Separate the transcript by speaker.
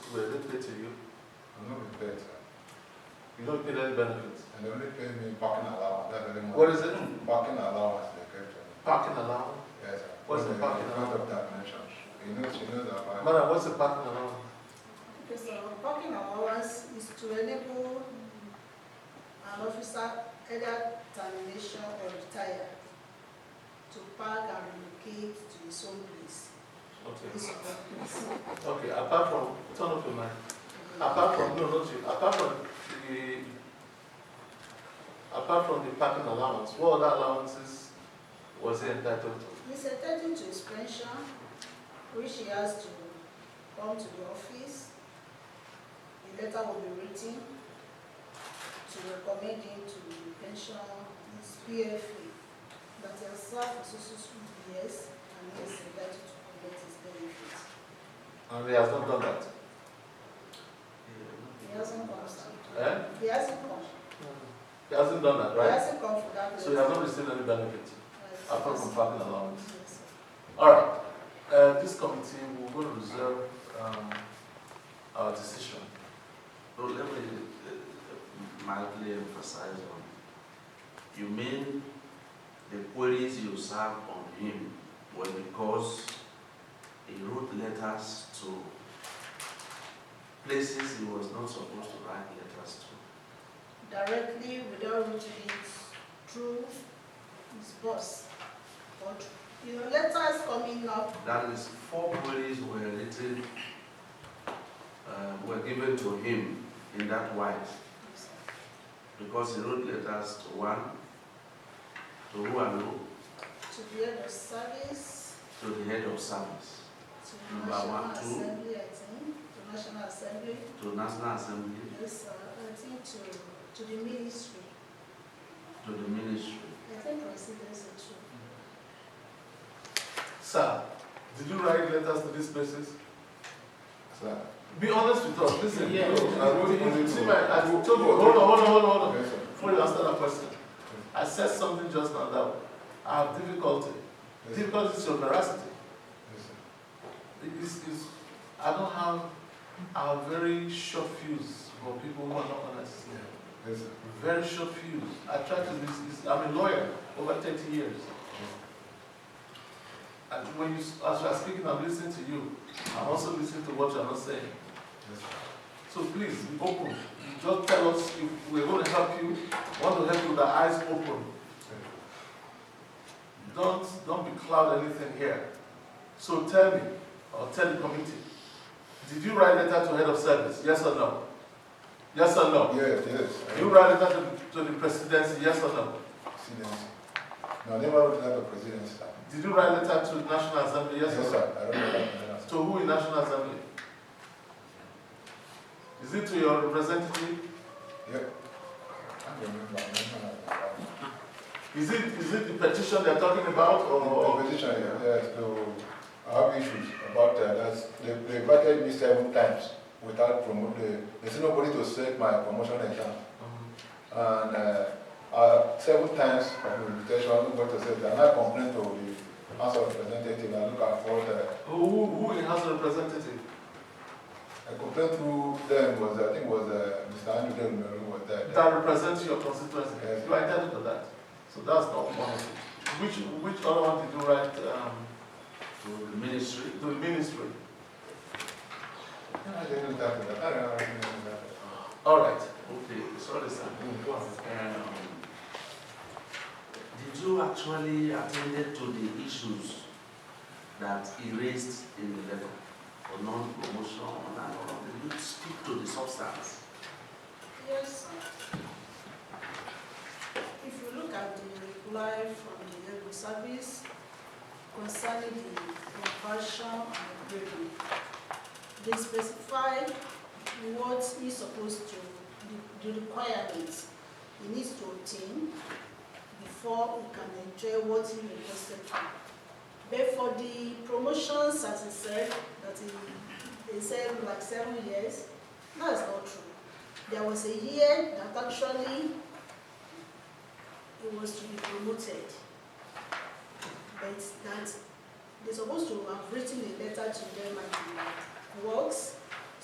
Speaker 1: it to you.
Speaker 2: I'm not prepared, sir.
Speaker 1: You don't get any benefits.
Speaker 2: And they only pay me parking allowance, that's very much.
Speaker 1: What is it?
Speaker 2: Parking allowance they give to me.
Speaker 1: Parking allowance?
Speaker 2: Yes, sir.
Speaker 1: What's the
Speaker 2: In
Speaker 1: parking uh,
Speaker 2: front of that mansion. You know, she knows about.
Speaker 1: Madam, what's the parking allowance?
Speaker 3: Okay, so parking allowance is to enable an officer either termination or retire to park and relocate to his own place, to his
Speaker 1: Okay.
Speaker 3: own place.
Speaker 1: Okay, apart from, turn off your mic. Apart from, no, not you, apart from the, apart from the parking allowance, what other allowances was he entitled to?
Speaker 3: He's entitled to his pension, which he has to come to the office. A letter will be written to recommend him to the pension, his PFA, that he has served for so so so many years and he is entitled to collect his benefits.
Speaker 1: And he has not done that.
Speaker 3: He hasn't come, sir.
Speaker 1: Eh?
Speaker 3: He hasn't come.
Speaker 1: He hasn't done that,
Speaker 3: He
Speaker 1: right?
Speaker 3: hasn't come for that.
Speaker 1: So he has
Speaker 3: letter.
Speaker 1: not received any benefit.
Speaker 3: Yes,
Speaker 1: apart from
Speaker 3: yes.
Speaker 1: parking allowance.
Speaker 3: Yes, sir.
Speaker 1: All right, uh, this committee will go to reserve, um, our decision.
Speaker 4: No, let me uh, mildly emphasize on, you mean the queries you served on him were because he wrote letters to places he was not supposed to write letters to?
Speaker 3: directly without reaching it through his boss. But, you know, letters coming up,
Speaker 4: That is, four queries were written, uh, were given to him in that wise, because he wrote letters to one, to who and who,
Speaker 3: to the head of service,
Speaker 4: to the head of service.
Speaker 3: to the
Speaker 4: Number
Speaker 3: National
Speaker 4: one, two.
Speaker 3: Assembly, I think, to National Assembly,
Speaker 4: to National Assembly,
Speaker 3: yes, uh, I think to, to the ministry,
Speaker 4: to the ministry.
Speaker 3: I think presidency too.
Speaker 1: Sir, did you write letters to these places?
Speaker 2: Sir.
Speaker 1: Be honest with us, listen.
Speaker 2: Yeah.
Speaker 1: no, I wrote it, you see my, I told you, hold on, hold on, hold on, hold on.
Speaker 2: Yes, sir.
Speaker 1: Before you answer that question, I said something just now that I have difficulty.
Speaker 2: Yes, sir.
Speaker 1: Difficulty is your veracity.
Speaker 2: Yes, sir.
Speaker 1: It is, is, I don't have, I have very short fuse for people who are not honest.
Speaker 2: Yes, sir.
Speaker 1: Very short fuse. I try to, this, this, I'm a lawyer over thirty years. And when you, s- as you are speaking, I'm listening to you. I'm also listening to what you are not saying.
Speaker 2: Yes, sir.
Speaker 1: So please, be open. You Just tell us if we're going to help you, want to help you with the eyes open. Don't, don't be cloud anything here. So tell me, or tell the committee, did you write letter to head of service, yes or no? Yes or no?
Speaker 2: Yes, yes. I
Speaker 1: You write letter to, to the presidency, yes or no?
Speaker 2: Presidency. No, I never wrote that to presidency. sir.
Speaker 1: Did you write letter to the National Assembly, yes or no?
Speaker 2: sir. I wrote that to presidency.
Speaker 1: To who in National Assembly? Is it to your representative?
Speaker 2: Yep. I remember, I remember. that.
Speaker 1: Is it, is it the petition they're talking about,
Speaker 2: The
Speaker 1: or?
Speaker 2: Opposition, yes, so I have issues about that, that's, they, they invited me seven times without promote, they, they said nobody to set my promotion exam. And, uh, uh, seven times of invitation, nobody to set, and I complained to the House of Representative, I look at what, uh,
Speaker 1: Who, who in House of Representative?
Speaker 2: I complained through them was, I think was, uh, Mr. Andrew Demiru was there.
Speaker 1: that represents your constituency.
Speaker 2: Yes.
Speaker 1: You are entitled to that. So that's not one of it. Which, which other one did you write um,
Speaker 4: To the ministry.
Speaker 1: to the ministry?
Speaker 2: I didn't look at that, I don't know, I didn't look at that.
Speaker 1: All right.
Speaker 4: Okay, sorry, sir.
Speaker 1: Mm, go on.
Speaker 4: Um, Did you actually attend to the issues that he raised in the letter? For non-promotion and all of them? Did you speak to the substance?
Speaker 3: Yes, sir. If you look at the reply from the head of service concerning the conversion and grading, they specify what he's supposed to, the- the requirements he needs to obtain before he can enjoy what he requested for. But for the promotions, as he said, that he, he said like seven years, that is not true. There was a year that actually he was to be promoted. But that they're supposed to have written a letter to them at the works